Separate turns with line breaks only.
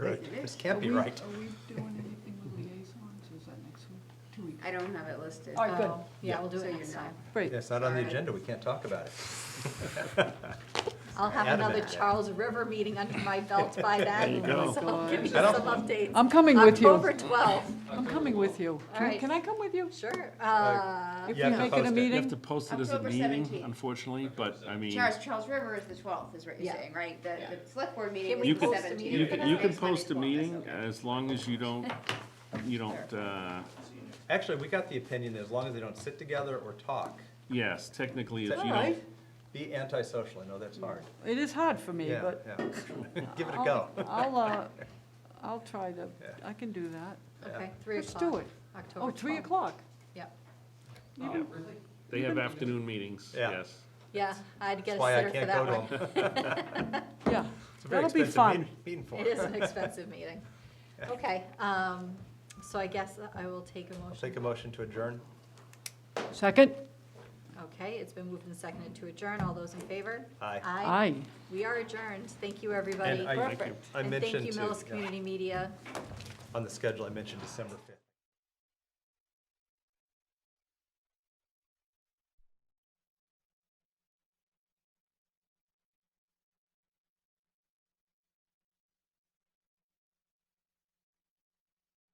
It is.
This can't be
Are we-
right.
Are we doing anything with liaisons? Is that next week? Two weeks?
I don't have it listed. Uh,
All right, good.
Oh, Yeah, we'll do
So
it
you're
next
not-
time.
Great.
It's not on the
Alright.
agenda, we can't talk about it.
I'll have
Adamant.
another Charles River meeting under my belt by then. So I'll give you
I don't-
some updates.
I'm coming with you.
October 12th,
I'm coming with you. Can-
right.
Can I come with you?
sure. Uh,
If
you
we
have to
make it
post
a
it.
meeting?
You have to post it as a
October
meeting,
17th.
unfortunately, but I mean,
Charles, Charles River is the twelfth, is what you're
Yeah.
saying, right? The, the select board meeting
Can
is
we
you
the
can,
post a
seventeenth.
meeting
you
for
can,
that?
you can
Next
post a
Monday's
meeting
twelfth, that's okay.
as long as you don't, you don't, uh,
Actually, we got the opinion that as long as they don't sit together or talk,
yes, technically,
is
if
that-
you don't.
be antisocial, I know that's hard.
It is hard for me,
Yeah,
but
yeah. Give it a
I'll-
go.
I'll, uh, I'll try to,
Yeah.
I can do that.
Okay, 3
Let's
o'clock.
do it.
October
Oh, 3
12th.
o'clock.
Yep.
They have afternoon meetings,
Yeah.
yes.
Yeah, I'd get
That's
a
why I
sitter for
can't go
that
to
one.
them.
Yeah.
It's a very
That'll be
expensive
fun.
meeting- Meeting for
It is
it.
an expensive meeting. Okay, um, so I guess I will take a
I'll
motion.
take a motion to adjourn.
Second?
Okay, it's been moved and seconded to adjourn. All those in favor?
Aye.
Aye.
Aye.
We are adjourned. Thank you, everybody.
And I-
Thank you.
I
And thank
mentioned
you,
too,
Millis
yeah.
Community Media.
On the schedule, I mentioned December 5th.